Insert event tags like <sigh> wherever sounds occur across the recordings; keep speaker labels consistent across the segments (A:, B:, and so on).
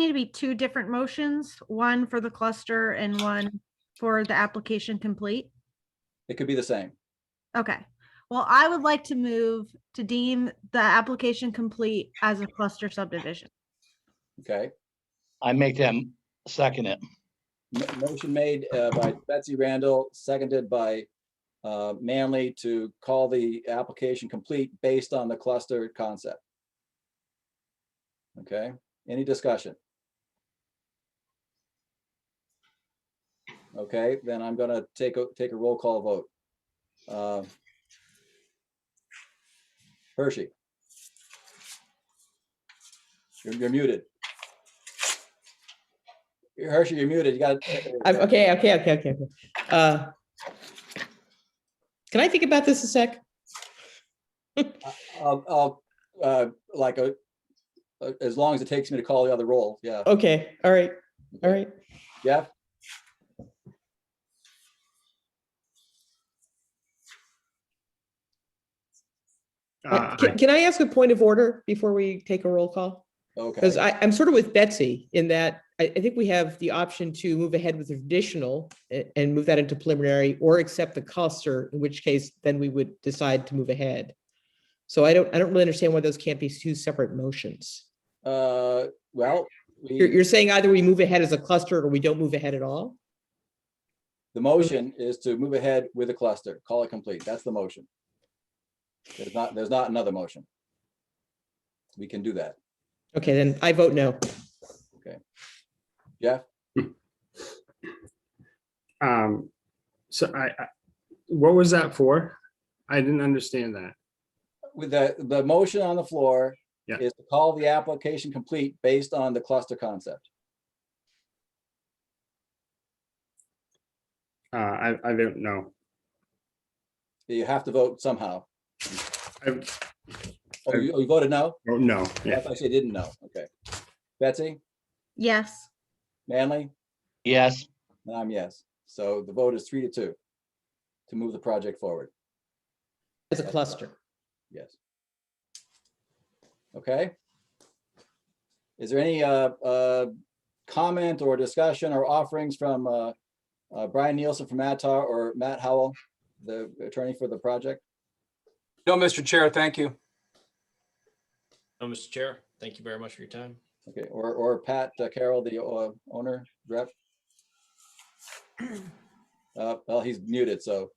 A: need to be two different motions, one for the cluster and one for the application complete?
B: It could be the same.
A: Okay, well, I would like to move to deem the application complete as a cluster subdivision.
B: Okay.
C: I make them second it.
B: M- Motion made uh, by Betsy Randall, seconded by uh, Manley to call the application complete based on the cluster concept. Okay, any discussion? Okay, then I'm gonna take a, take a roll call vote. Uh, Hershey. You're you're muted. Hershey, you're muted. You gotta.
D: I'm, okay, okay, okay, okay. okay. Uh, Can I think about this a sec?
B: I'll, I'll, uh, like, a as long as it takes me to call the other roll, yeah.
D: Okay, all right, all right.
B: Jeff?
E: Uh,
D: Can, can I ask a point of order before we take a roll call?
B: Okay,
D: Because I, I'm sort of with Betsy in that I, I think we have the option to move ahead with the traditional a- and move that into preliminary or accept the cluster, in which case then we would decide to move ahead. So I don't, I don't really understand why those can't be two separate motions.
B: uh, well,
D: You're,
B: we,
D: you're saying either we move ahead as a cluster or we don't move ahead at all?
B: the motion is to move ahead with a cluster, call it complete. That's the motion. There's not, there's not another motion. We can do that.
D: Okay, then I vote no.
E: um, so I, I, what was that for? I didn't understand that.
B: With the, the motion on the floor
E: Yeah.
B: is to call the application complete based on the cluster concept.
E: Uh, I, I don't know.
B: You have to vote somehow.
E: I
B: Oh, you oh, you voted no?
E: don't know.
B: I
E: Yeah.
B: actually didn't know. Okay. Betsy,
A: Yes,
B: Manley?
C: Yes,
B: And I'm Um, yes. So the vote is three to two to move the project forward.
D: As a cluster.
B: Yes. Okay. Is there any uh, uh, comment or discussion or offerings from uh, uh, Brian Nielsen from Matar or Matt Howell, the attorney for the project?
F: No, Mr. Chair, thank you.
G: No, Mr. Chair, thank you very much for your time.
B: Okay, or, or Pat uh, Carroll, the uh, owner rep? Uh, Well, he's muted, so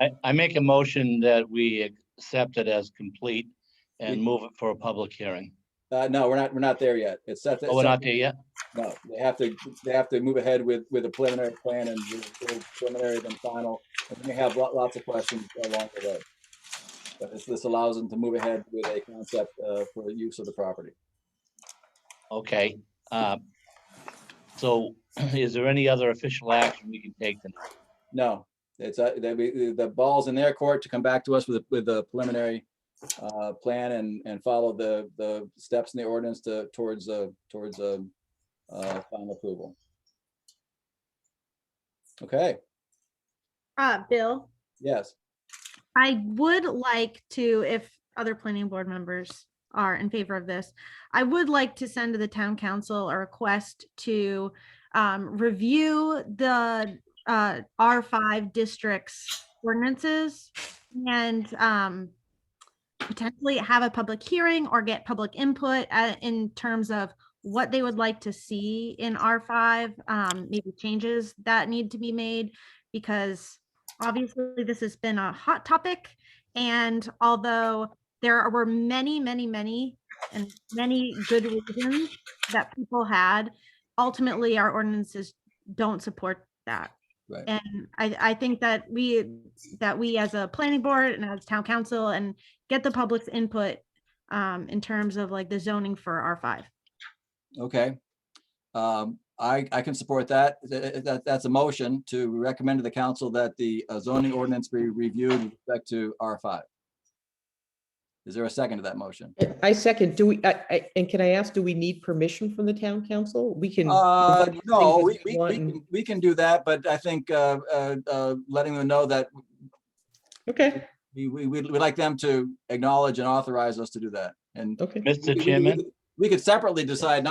C: I, I make a motion that we accept it as complete and
B: We-
C: move it for a public hearing.
B: uh, no, we're not, we're not there yet. It's set.
C: Oh, we're not there yet?
B: No, they have to, they have to move ahead with, with a preliminary plan and do- do preliminary then final. And they have lot, lots of questions along the way. But this, this allows them to move ahead with a concept, uh, for the use of the property.
C: Okay. uh, So <clears throat> is there any other official action we can take tonight?
B: No, it's, uh, they, we- the ball's in their court to come back to us with, a- with the preliminary, uh, plan and, and follow the, the steps in the ordinance to, towards, uh, towards, uh, uh, final approval. Okay,
A: uh, Bill,
B: yes,
A: I would like to, if other planning board members are in favor of this, I would like to send to the town council a request to um, review the uh, R5 districts ordinances and um, potentially have a public hearing or get public input uh, in terms of what they would like to see in R5, um, maybe changes that need to be made, because obviously this has been a hot topic. And although there were many, many, many, and many good reasons that people had, ultimately our ordinances don't support that.
B: Right.
A: And I, I think that we, that we as a planning board and as town council and get the public's input um, in terms of like the zoning for R5.
B: Okay. Um, I, I can support that. That, that- that's a motion to recommend to the council that the uh, zoning ordinance be reviewed with respect to R five. Is there a second to that motion?
D: I second, do we, I, I, and can I ask, do we need permission from the town council? We can.
B: Uh,
D: vote
B: no,
D: things
B: we,
D: as
B: we,
D: want
B: we
D: and-
B: can- we can do that, but I think, uh, uh, uh, letting them know that
D: Okay,
B: we, we, we'd we'd like them to acknowledge and authorize us to do that and.
D: okay.
B: we- we-
C: Mr.
B: we-
C: Chairman,
B: we- we could separately decide not